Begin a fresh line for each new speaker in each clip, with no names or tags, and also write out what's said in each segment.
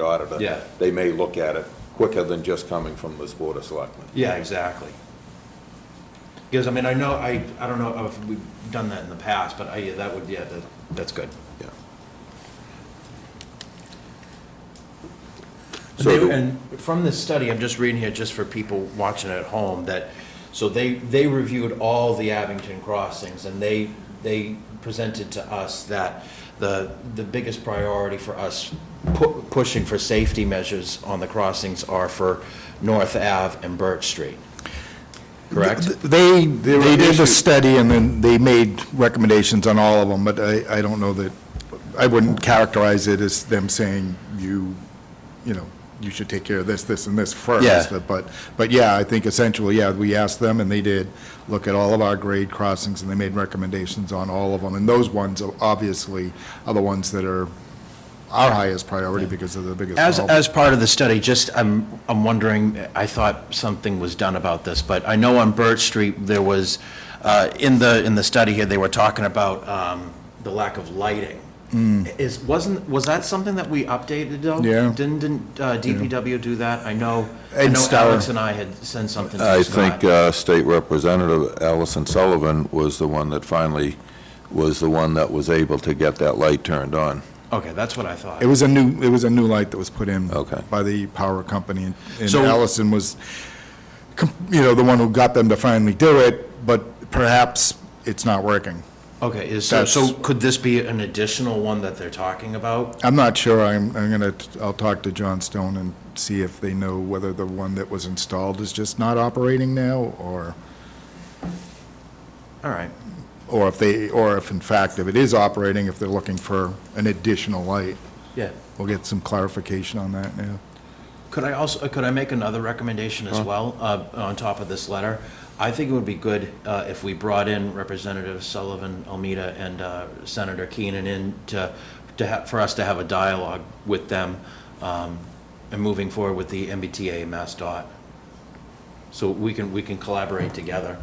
auditor.
Yeah.
They may look at it quicker than just coming from this Board of Selectmen.
Yeah, exactly. Because, I mean, I know, I, I don't know if we've done that in the past, but I, yeah, that would, yeah, that, that's good.
Yeah.
And
So do-
they- And from this study, I'm just reading here, just for people watching at home, that, so they, they reviewed all the Abington crossings, and they, they presented to us that the, the biggest priority for us pu- pushing for safety measures on the crossings are for North Ave and Birch Street. Correct?
They,
were
they did the
issues.
study and then they made recommendations on all of them, but I, I don't know that, I wouldn't characterize it as them saying you, you know, you should take care of this, this, and this first.
Yeah.
But, but yeah, I think essentially, yeah, we asked them and they did look at all of our grade crossings and they made recommendations on all of them. And those ones are obviously are the ones that are our highest priority because of the biggest
As,
problem.
as part of the study, just, I'm, I'm wondering, I thought something was done about this, but I know on Birch Street, there was, uh, in the, in the study here, they were talking about um, the lack of lighting. Is, wasn't, was that something that we updated though?
Mm. Yeah.
Didn't, didn't uh, DPW do that? I know, I
Ed
know
Stower.
Alex and I had sent something
I
to
think
Scott.
uh, State Representative Allison Sullivan was the one that finally, was the one that was able to get that light turned on.
Okay, that's what I thought.
uh, It was a new, it was a new light that was put in.
Okay.
By the power company, and- and
So-
Allison was, com- you know, the one who got them to finally do it, but perhaps it's not working.
Okay, is, so, so
That's-
could this be an additional one that they're talking about?
I'm not sure, I'm, I'm gonna, I'll talk to John Stone and see if they know whether the one that was installed is just not operating now, or,
All right.
or if they, or if in fact, if it is operating, if they're looking for an additional light.
Yeah.
We'll get some clarification on that now.
Could I also, could I make another recommendation as well, uh, on top of this letter? I think it would be good uh, if we brought in Representative Sullivan, Almeida, and uh, Senator Keenan in to, to have, for us to have a dialogue with them um, and moving forward with the MBTA Mass Dot. So we can, we can collaborate together.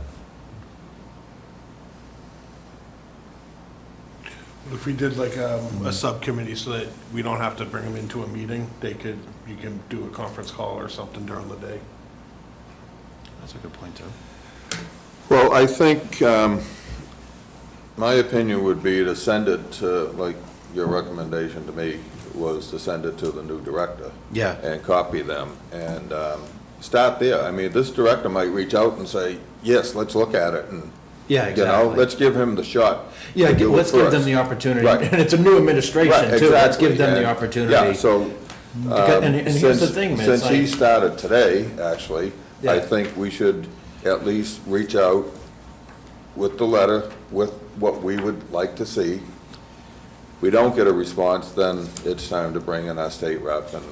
If we did like um, a subcommittee so that we don't have to bring them into a meeting, they could, you can do a conference call or something during the day.
That's a good point, too.
Well, I think, um, my opinion would be to send it to, like, your recommendation to me was to send it to the new director.
Yeah.
And copy them, and um, start there. I mean, this director might reach out and say, yes, let's look at it, and,
Yeah,
you know,
exactly.
let's give him the shot.
Yeah,
to do it
let's give them
first.
the opportunity,
Right.
and it's a new administration,
Right,
too. Let's
exactly,
give them the
and-
opportunity. Mm,
Yeah, so. um,
Because- And and here's the
since-
thing, man, it's
Since he
like,
started today, actually, I
Yeah.
think we should at least reach out with the letter, with what we would like to see. We don't get a response, then it's time to bring in our state rep and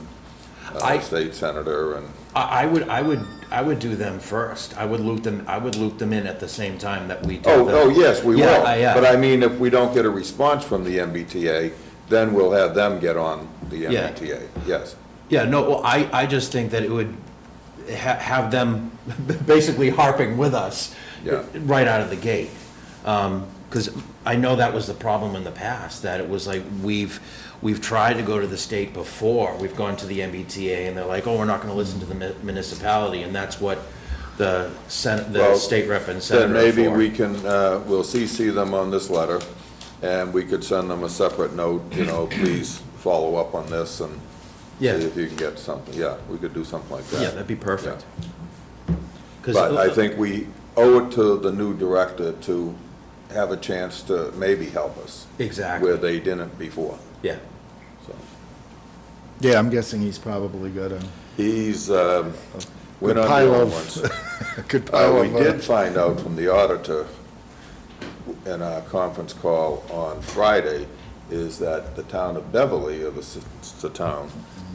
uh,
I-
state senator and,
I, I would, I would, I would do them first. I would loop them, I would loop them in at the same time that we do
oh,
the-
oh, yes, we will.
Yeah, I- yeah.
But I mean, if we don't get a response from the MBTA, then we'll have them get on the
Yeah.
MBTA, yes.
Yeah, no, well, I, I just think that it would ha- have them basically harping with us
Yeah.
right out of the gate. Because I know that was the problem in the past, that it was like, we've, we've tried to go to the state before, we've gone to the MBTA, and they're like, oh, we're not going to listen to the mi- municipality, and that's what the sen the
Well,
state rep and senator
Then
are
maybe
for.
we can, uh, we'll CC them on this letter, and we could send them a separate note, you know, please follow up on this and see
Yeah.
if you can get something, yeah, we could do something like that.
Yeah, that'd be perfect.
Yeah.
'Cause-
But I think we owe it to the new director to have a chance to maybe help us
Exactly,
where they didn't before,
yeah.
so.
Yeah, I'm guessing he's probably got a
He's, um, we're
Good
not
pile
the only
of-
ones.
a good
Uh,
pile
We
of, uh,
did find out from the auditor in our conference call on Friday is that the town of Beverly, or the, s- the town,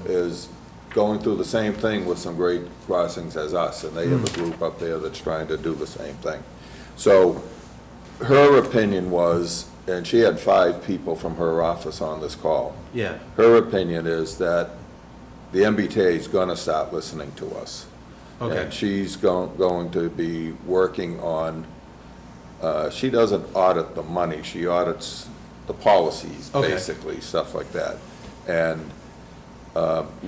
is going through the same thing with some grade crossings as us, and they have a group up there that's trying to do the same thing. So her opinion was, and she had five people from her office on this call.
Yeah.
Her opinion is that the MBTA is going to start listening to us.
Okay.
And she's go- going to be working on, uh, she doesn't audit the money, she audits the policies,
Okay.
basically, stuff like that. And